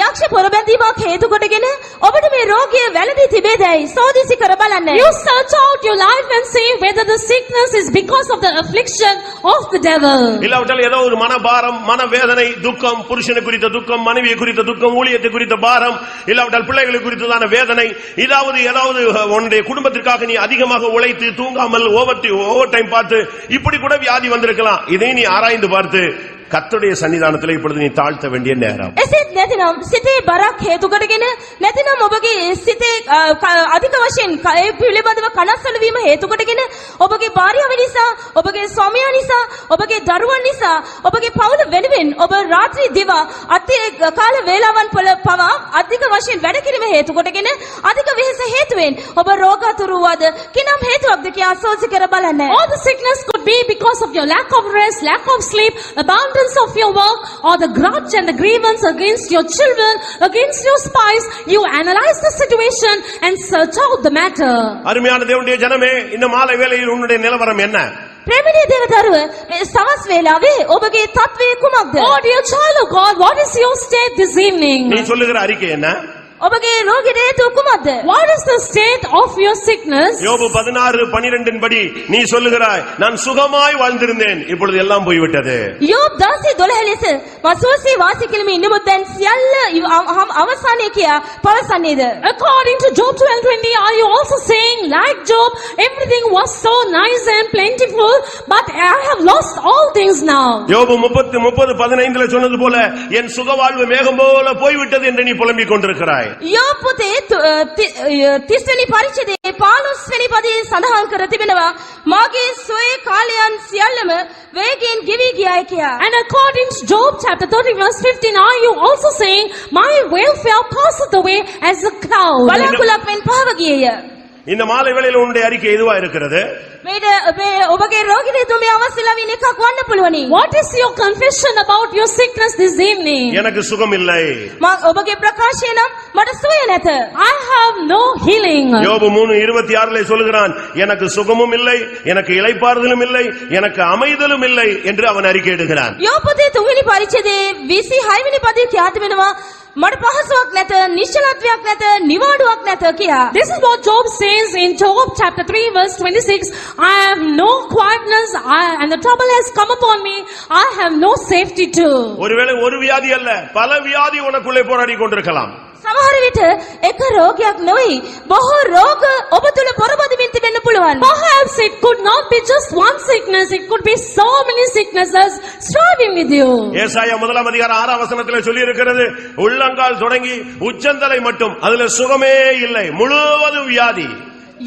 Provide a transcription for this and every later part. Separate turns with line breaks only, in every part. යක්ෂ පොරබැඳීමක් හේතු කොටගෙන ඔබට මේ රෝගය වැළඳී තිබේදැයි සෝදිසි කර බලන්න.
You search out your life and see whether the sickness is because of the affliction of the devil.
இல்லாவிட்டால் ஏதோ ஒரு மனபாரம் மனவேதனை துக்கம் புருஷனை குறித்த துக்கம் மனைவியை குறித்த துக்கம் ஊழியத்தை குறித்த பாரம் இல்லாவிட்டால் பிள்ளைகளை குறித்ததான வேதனை இதாவது ஏதாவது அஹ், உன்னுடைய குடும்பத்திற்காக நீ அதிகமாக உழைத்து தூங்காமல் ஓவர் ஓவர் டைம் பார்த்து இப்படி கூட வியாதி வந்திருக்கலாம் இதை நீ ஆராய்ந்து பார்த்து கர்த்தருடைய சன்னிதானத்தில் இப்பொழுது நீ தாழ்த்த வேண்டிய நேரம்
එසේත් නැතිනම් සිතේ බරක් හේතු කොටගෙන නැතිනම් ඔබගේ සිතේ අ, ක- අධික වශයෙන් කය පිළිබඳව කනස්සලු වීම හේතු කොටගෙන ඔබගේ භාර්යාව නිසා ඔබගේ ස්වාමියා නිසා ඔබගේ දරුවන් නිසා ඔබගේ පවුල වෙනුවෙන් ඔබ රාත්‍රී දිවා අති කාල වේලාවන් පොළ පවා අධික වශයෙන් වැඩ කිරීම හේතු කොටගෙන අධික වෙහෙස හේතුවෙන් ඔබ රෝගාතුරු වද කිනම් හේතුවක්ද කියා සෝසි කර බලන්න
All the sickness could be because of your lack of rest, lack of sleep, abundance of your work, or the grudge and the grievance against your children, against your spouse. You analyze the situation and search out the matter.
அருமையான தேவனுடைய ஜனமே இந்த மாலை வேளையில் உன்னுடைய நிலவரம் என்ன
ප්‍රේමණීය දේවදරුව මේ සවස් වේලාවේ ඔබගේ තත්වය කුමක්ද
Oh dear child of God, what is your state this
நீ
evening?
சொல்லுகிற அறிக்கை என்ன
ඔබගේ රෝගයට හේතු කුමක්ද?
What is the state of your sickness?
யோபு பதினாறு பனிரெண்டின் படி நீ சொல்லுகிறாய் நான் சுகமாய் வாழ்ந்திருந்தேன் இப்பொழுது எல்லாம் போய்விட்டது
යෝබ් 10:12 ලෙස මසෝසී වාසය කිලිමේ ඉන්න මුදන් සියල්ල ඉව- අව- අව- අවසානයේ කියා පවසන්නේද?
According to Job 12:20, are you also saying, like Job, everything was so nice and plentiful, but I have lost all things now?
யோபு முப்பத்து முப்பது பதினைந்துல சொன்னது போல என் சுகவாழ்வு மேகம் போல போய்விட்டது என்று நீ புலம்பிக் கொண்டிருக்கிறாய்
යෝබ් පොතේ තු- අ, ති- අ, 30 වෙනි පරිච්ඡේදයේ 15 වෙනි පදයේ සඳහන් කර තිබෙනවා මාගේ සොයේ කාලයන් සියල්ලම වේගයෙන් ගෙවී ගියායි කියා.
And according to Job chapter 30 verse 15, are you also saying, my welfare passeth away as a cloud?
බලාකුලක් මෙන් පහව ගියේය.
இந்த மாலை வேளையில் உன்னுடைய அறிக்கை எதுவா இருக்கிறது
මේට මේ ඔබගේ රෝගයට හේතු මේ අවස්සලා වින එකක් වන්න පුළුවනි.
What is your confession about your sickness this evening?
எனக்கு சுகம் இல்லை
මා ඔබගේ ප්‍රකාශය නම් මට සුවය නැත.
I have no healing.
யோபு மூணு இருபத்தி ஆறுல சொல்லுகிறான் எனக்கு சுகமும் இல்லை எனக்கு இளைப்பாறுதலும் இல்லை எனக்கு அமைதலும் இல்லை என்று அவன் அறிக்கை எடுக்கிறான்
යෝපතේ තුන්වෙනි පරිච්ඡේදයේ 26 වෙනි පදයේ ක්‍රියාත් වෙනවා මට පහසුවක් නැත, නිශ්චලත්වයක් නැත, නිවාඩුවක් නැත කියා.
This is what Job says in Job chapter 3 verse 26. I have no quietness I, and the trouble has come upon me. I have no safety too.
ஒருவேளை ஒரு வியாதி அல்ல பல வியாதி உனக்குள்ளே போராடி கொண்டிருக்கலாம்
සමහර විට එක රෝගයක් නොවේ. බොහෝ රෝග ඔබ තුල පොරබදිමින් තිබෙන්න පුළුවන්.
Perhaps it could not be just one sickness. It could be so many sicknesses striving with you.
ஏசாயா முதலாம் அதிகாரம் ஆறாம் வசனத்துல சொல்லி இருக்கிறது உள்ளங்கால் தொடங்கி உச்சந்தலை மட்டும் அதுல சுகமே இல்லை முழுவதும் வியாதி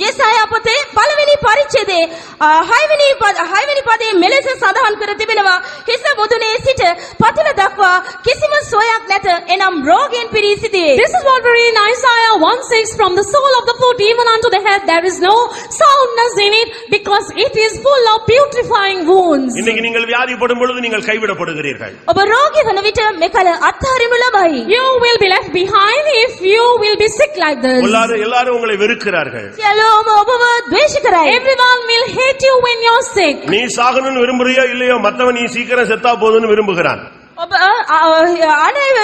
යෙසායා පොතේ පළවෙනි පරිච්ඡේදයේ අ, හයවෙනි පද හයවෙනි පදයේ මෙලෙස සඳහන් කර තිබෙනවා හිස මුදුනේ සිට පතුල දක්වා කිසිම සුවයක් නැත. එනම් රෝගයෙන් පිරී සිටියේ.
This is what we read in Isaiah 1 6 from the sole of the foot even unto the head there is no soundness in it because it is full of beautifying wounds.
இன்னைக்கு நீங்கள் வியாதிப்படும் பொழுது நீங்கள் கைவிடப்படுகிறீர்கள்
ඔබ රෝගී වන විට මෙකල අත්හරිනු ලබයි.
You will be left behind if you will be sick like this.
எல்லாரும் எல்லாரும் உங்களை வெறுக்கிறார்கள்
සියලෝම ඔබව ද්වේශ කරයි.
Everyone will hate you when you're sick.
நீ சாகணும்னு விரும்புறியோ இல்லையோ மத்தவன் நீ சீக்கிரம் செத்தா போதும்னு விரும்புகிறான்
ඔබ අ, අ, අනේ අ,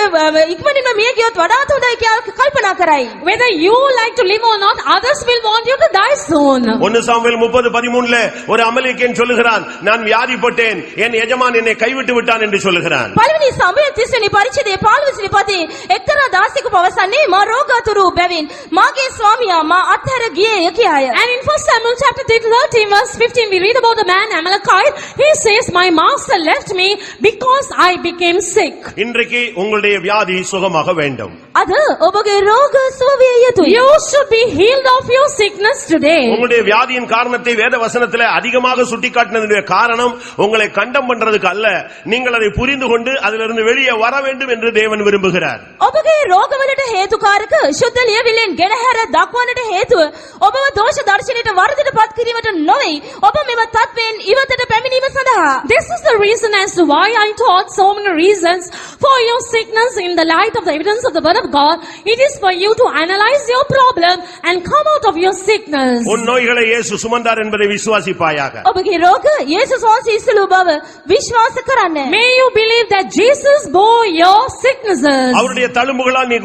ඉක්මනින්ම මිය ගියොත් වඩාත් හොඳයි කියලා කල්පනා කරයි.
Whether you like to live or not, others will want you to die soon.
ஒன்னு சாமுவேல் முப்பது பதிமூணுல ஒரு அமலிக்கேன் சொல்லுகிறான் நான் வியாதிப்பட்டேன் என் எஜமான் என்னை கைவிட்டு விட்டான் என்று சொல்லுகிறான்
පළවෙනි සමය 30 වෙනි පරිච්ඡේදයේ 15 වෙනි පදයේ එක්තරා දාසියෙකු පවසන්නේ මා රෝගාතුරු බැවින් මාගේ ස්වාමියා මා අත්හැර ගියේය කියාය.
And in 1 Samuel chapter 13 verse 15 we read about the man Amalekite. He says, my master left me because I became sick.
இன்றைக்கு உங்களுடைய வியாதி சுகமாக வேண்டும்
අද ඔබගේ රෝග සුව විය යුතුයි.
You should be healed of your sickness today.
உங்களுடைய வியாதியின் காரணத்தை வேத வசனத்துல அதிகமாக சுட்டிக்காட்டினதுடைய காரணம் உங்களை கண்டம் பண்றதுக்கு அல்ல நீங்கள் அதை புரிந்து கொண்டு அதிலிருந்து வெளியே வர வேண்டும் என்று தேவன் விரும்புகிறார்
ඔබගේ රෝගවලට හේතුකාරක ශුද්ධ ලියවිල්ලෙන් ගෙනහැර දක්වන්නට හේතුව ඔබව දෝෂ දර්ශනයට වර්ධයට පත් කිරීමට නොවේ. ඔබ මෙම තත්වයෙන් ඉවතට පැමිණීම සඳහා
This is the reason as to why I taught so many the reasons for your sickness in the light of the evidence of the word of God. It is for you to analyze your problem and come out of your sickness.
உன் நோய்களை இயேசு சுமந்தார் என்பதை விசுவாசிப்பாயாக
ඔබගේ රෝග යේසුස් වහන්සේ ඉසලූ බව විශ්වාස කරන්න.
May you believe that Jesus bore your sicknesses.
அவருடைய தழும்புகளால் நீ